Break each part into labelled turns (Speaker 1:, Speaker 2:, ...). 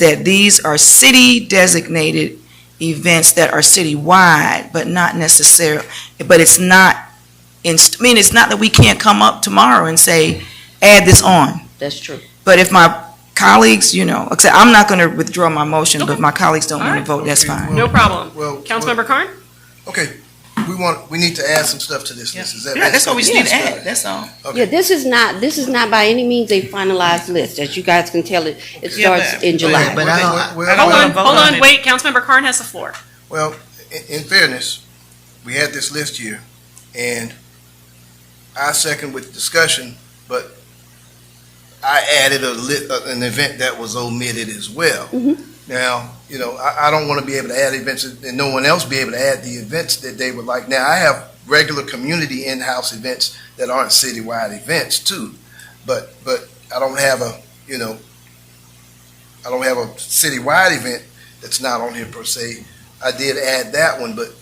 Speaker 1: that these are city designated events that are citywide, but not necessarily, but it's not, in- I mean, it's not that we can't come up tomorrow and say, add this on.
Speaker 2: That's true.
Speaker 1: But if my colleagues, you know, except I'm not going to withdraw my motion, but if my colleagues don't want to
Speaker 3: Alright.
Speaker 1: vote, that's
Speaker 4: Okay,
Speaker 1: fine.
Speaker 4: well-
Speaker 3: No problem.
Speaker 4: Well,
Speaker 3: Councilmember Karn?
Speaker 4: Okay, we want, we need to add some stuff to this list, is that?
Speaker 1: Yeah, that's what we just need to add, that's all.
Speaker 2: Yeah,
Speaker 4: Okay,
Speaker 2: this is not, this is not by any means a finalized list. As you guys can tell, it, it
Speaker 1: Yeah, but-
Speaker 2: starts in
Speaker 4: Yeah,
Speaker 2: July.
Speaker 4: but- I don't-
Speaker 1: I don't
Speaker 3: Hold
Speaker 1: wanna
Speaker 3: on,
Speaker 1: vote
Speaker 3: hold
Speaker 1: on
Speaker 3: on,
Speaker 1: it.
Speaker 3: wait, Councilmember Karn has the floor.
Speaker 4: well, in, in fairness, we had this list here, and I second with discussion, but I added a lit, uh, an event that was omitted as well.
Speaker 1: Mm-hmm.
Speaker 2: Mhm.
Speaker 4: Now, you know, I, I don't wanna be able to add events and no one else be able to add the events that they would like. Now, I have regular community in-house events that aren't citywide events too, but, but I don't have a, you know, I don't have a citywide event that's not on here per se. I did add that one, but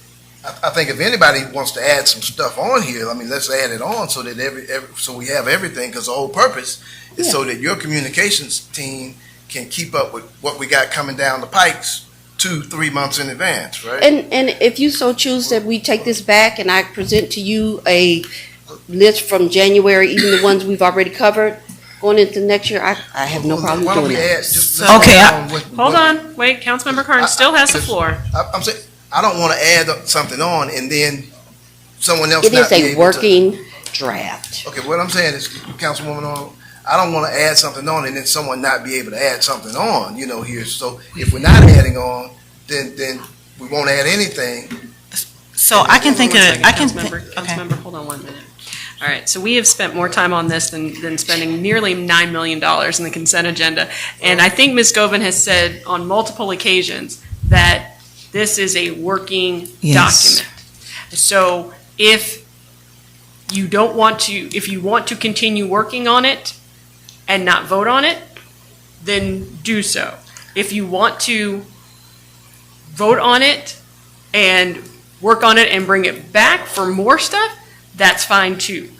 Speaker 4: I, I think if anybody wants to add some stuff on here, I mean, let's add it on so that every, every, so we have everything, because the whole purpose is so that your communications team can keep up with what we got coming down the pikes two, three months in advance, right?
Speaker 2: And, and if you so choose that we take this back and I present to you a list from January, even the ones we've already covered, going into next year, I, I have no problem
Speaker 4: Why don't
Speaker 2: doing
Speaker 4: we
Speaker 2: that.
Speaker 4: add just-
Speaker 1: So- Okay, I-
Speaker 4: on what-
Speaker 3: Hold
Speaker 4: what-
Speaker 3: on, wait, Councilmember Karn
Speaker 4: I-
Speaker 3: still has the
Speaker 4: I-
Speaker 3: floor.
Speaker 4: I- I'm saying, I don't want to add something on and then someone else
Speaker 2: It
Speaker 4: not
Speaker 2: is
Speaker 4: be
Speaker 2: a
Speaker 4: able to-
Speaker 2: working draft.
Speaker 4: Okay, what I'm saying is, Councilwoman, Arnold, I don't want to add something on and then someone not be able to add something on, you know, here. So if we're not adding on, then, then we won't add anything.
Speaker 5: So I can think of,
Speaker 3: One second,
Speaker 5: I can,
Speaker 3: Councilmember-
Speaker 5: thi- okay.
Speaker 3: Councilmember, hold on one minute. All right, so we have spent more time on this than, than spending nearly $9 million in the consent agenda. And I think Ms. Govan has said on multiple occasions that this is a working
Speaker 1: Yes.
Speaker 3: document. So if you don't want to, if you want to continue working on it and not vote on it, then do so. If you want to vote on it and work on it and bring it back for more stuff, that's fine too.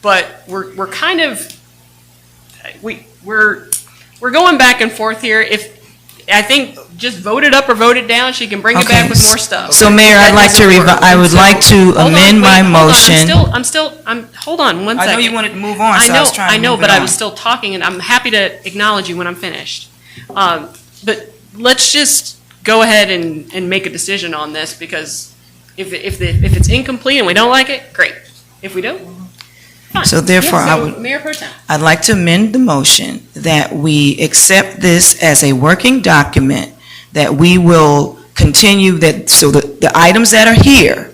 Speaker 3: But we're, we're kind of, we, we're, we're going back and forth here. If, I think just vote it up or vote it down, she can bring it
Speaker 1: Okay.
Speaker 3: back with more stuff.
Speaker 1: So Mayor,
Speaker 3: That
Speaker 1: I'd like to,
Speaker 3: doesn't
Speaker 1: revi-
Speaker 3: work.
Speaker 1: I would
Speaker 3: So-
Speaker 1: like to
Speaker 3: Hold on,
Speaker 1: amend
Speaker 3: wait,
Speaker 1: my
Speaker 3: hold on. I'm
Speaker 1: motion.
Speaker 3: still, I'm still, I'm, hold on, one
Speaker 1: I
Speaker 3: second.
Speaker 1: know you wanted to move on,
Speaker 3: I
Speaker 1: so I
Speaker 3: know,
Speaker 1: was trying to
Speaker 3: I know,
Speaker 1: move
Speaker 3: but
Speaker 1: it
Speaker 3: I
Speaker 1: on.
Speaker 3: was still talking, and I'm happy to acknowledge you when I'm finished. Um, But let's just go ahead and, and make a decision on this, because if, it- if, the if it's incomplete and we don't like it, great. If we do, fine.
Speaker 1: So therefore,
Speaker 3: Yeah,
Speaker 1: I
Speaker 3: so
Speaker 1: would-
Speaker 3: Mayor Pro Tem.
Speaker 1: I'd like to amend the motion that we accept this as a working document, that we will continue that, so the, the items that are here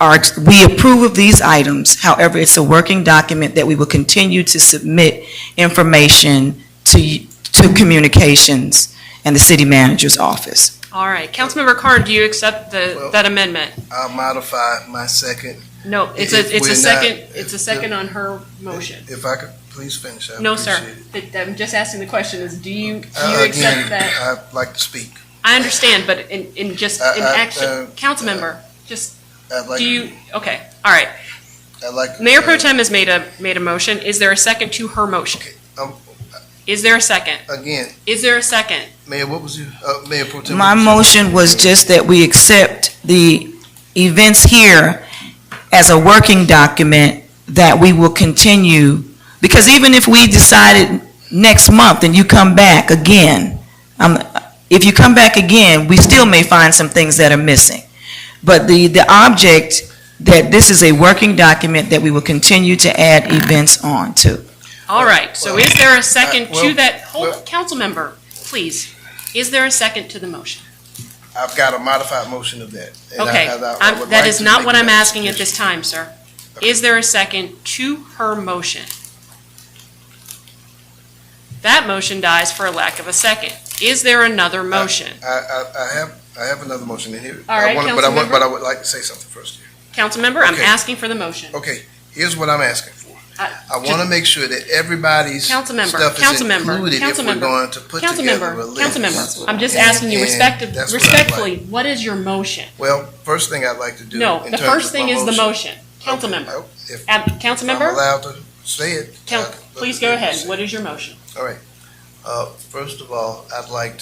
Speaker 1: are, we approve of these items, however, it's a working document that we will continue to submit information to, y- to communications and the city manager's office.
Speaker 3: All right, Councilmember Carr, do you accept the,
Speaker 4: Well-
Speaker 3: that amendment?
Speaker 4: I'll modify my second,
Speaker 3: No, it's
Speaker 4: If
Speaker 3: a, it's
Speaker 4: we're
Speaker 3: a
Speaker 4: not-
Speaker 3: second, it's a
Speaker 4: if-
Speaker 3: second on her motion.
Speaker 4: if I could please finish. I
Speaker 3: No, sir.
Speaker 4: appreciate it.
Speaker 3: Th- I'm just asking the question is, do you, do
Speaker 4: Uh,
Speaker 3: you accept
Speaker 4: Again,
Speaker 3: that?
Speaker 4: I'd like to speak.
Speaker 3: I understand, but in, in just,
Speaker 4: Uh,
Speaker 3: in
Speaker 4: uh, uh,
Speaker 3: action, council member, just,
Speaker 4: I'd like,
Speaker 3: do you, okay, all right.
Speaker 4: I'd like.
Speaker 3: Mayor Pro
Speaker 4: uh,
Speaker 3: Tem has made a, made a motion. Is there a second to her motion?
Speaker 4: um,
Speaker 3: Is there a second?
Speaker 4: Again,
Speaker 3: Is there a second?
Speaker 4: Mayor, what was your, uh, Mayor Pro Tem?
Speaker 1: My
Speaker 4: what was your-
Speaker 1: motion was just that we accept the events here as a working document that we will continue, because even if we decided next month and you come back again, um, if you come back again, we still may find some things that are missing. But the, the object, that this is a working document that we will continue to add events on to.
Speaker 3: All right, so is there a second
Speaker 4: uh, well,
Speaker 3: to that? Hold,
Speaker 4: well-
Speaker 3: council member, please. Is there a second to the motion?
Speaker 4: I've got a modified motion of that. and I-
Speaker 3: Okay,
Speaker 4: and I- I
Speaker 3: I'm-
Speaker 4: would
Speaker 3: that
Speaker 4: like
Speaker 3: is
Speaker 4: to
Speaker 3: not
Speaker 4: make
Speaker 3: what
Speaker 4: that
Speaker 3: I'm asking at this
Speaker 4: suggestion.
Speaker 3: time, sir. Is there a second to her motion? That motion dies for a lack of a second. Is there
Speaker 4: Uh,
Speaker 3: another motion?
Speaker 4: I, I, I have, I have another motion in here.
Speaker 3: All
Speaker 4: I
Speaker 3: right,
Speaker 4: wanna- But I want,
Speaker 3: Councilmember.
Speaker 4: but I would like to say something first here.
Speaker 3: Councilmember, I'm
Speaker 4: Okay.
Speaker 3: asking for the motion.
Speaker 4: Okay, here's what I'm asking for.
Speaker 3: I-
Speaker 4: I want to make sure that everybody's stuff is
Speaker 3: Uh, Councilmember,
Speaker 4: included
Speaker 3: councilmember, councilmember,
Speaker 4: if we're going to put together
Speaker 3: Councilmember,
Speaker 4: a list.
Speaker 3: councilmember, I'm just
Speaker 4: And-
Speaker 3: asking you
Speaker 4: and
Speaker 3: respect-
Speaker 4: that's what I'd like.
Speaker 3: respectfully, what is your motion?
Speaker 4: Well, first thing I'd like to do.
Speaker 3: No,
Speaker 4: in
Speaker 3: the
Speaker 4: terms
Speaker 3: first
Speaker 4: of
Speaker 3: thing
Speaker 4: my
Speaker 3: is the motion.
Speaker 4: Okay,
Speaker 3: Councilmember,
Speaker 4: oh, If
Speaker 3: ab-
Speaker 4: I'm
Speaker 3: councilmember,
Speaker 4: allowed to say it.
Speaker 3: coun-
Speaker 4: I'd-
Speaker 3: please go ahead. What is your motion?
Speaker 4: Uh, first of all, I'd like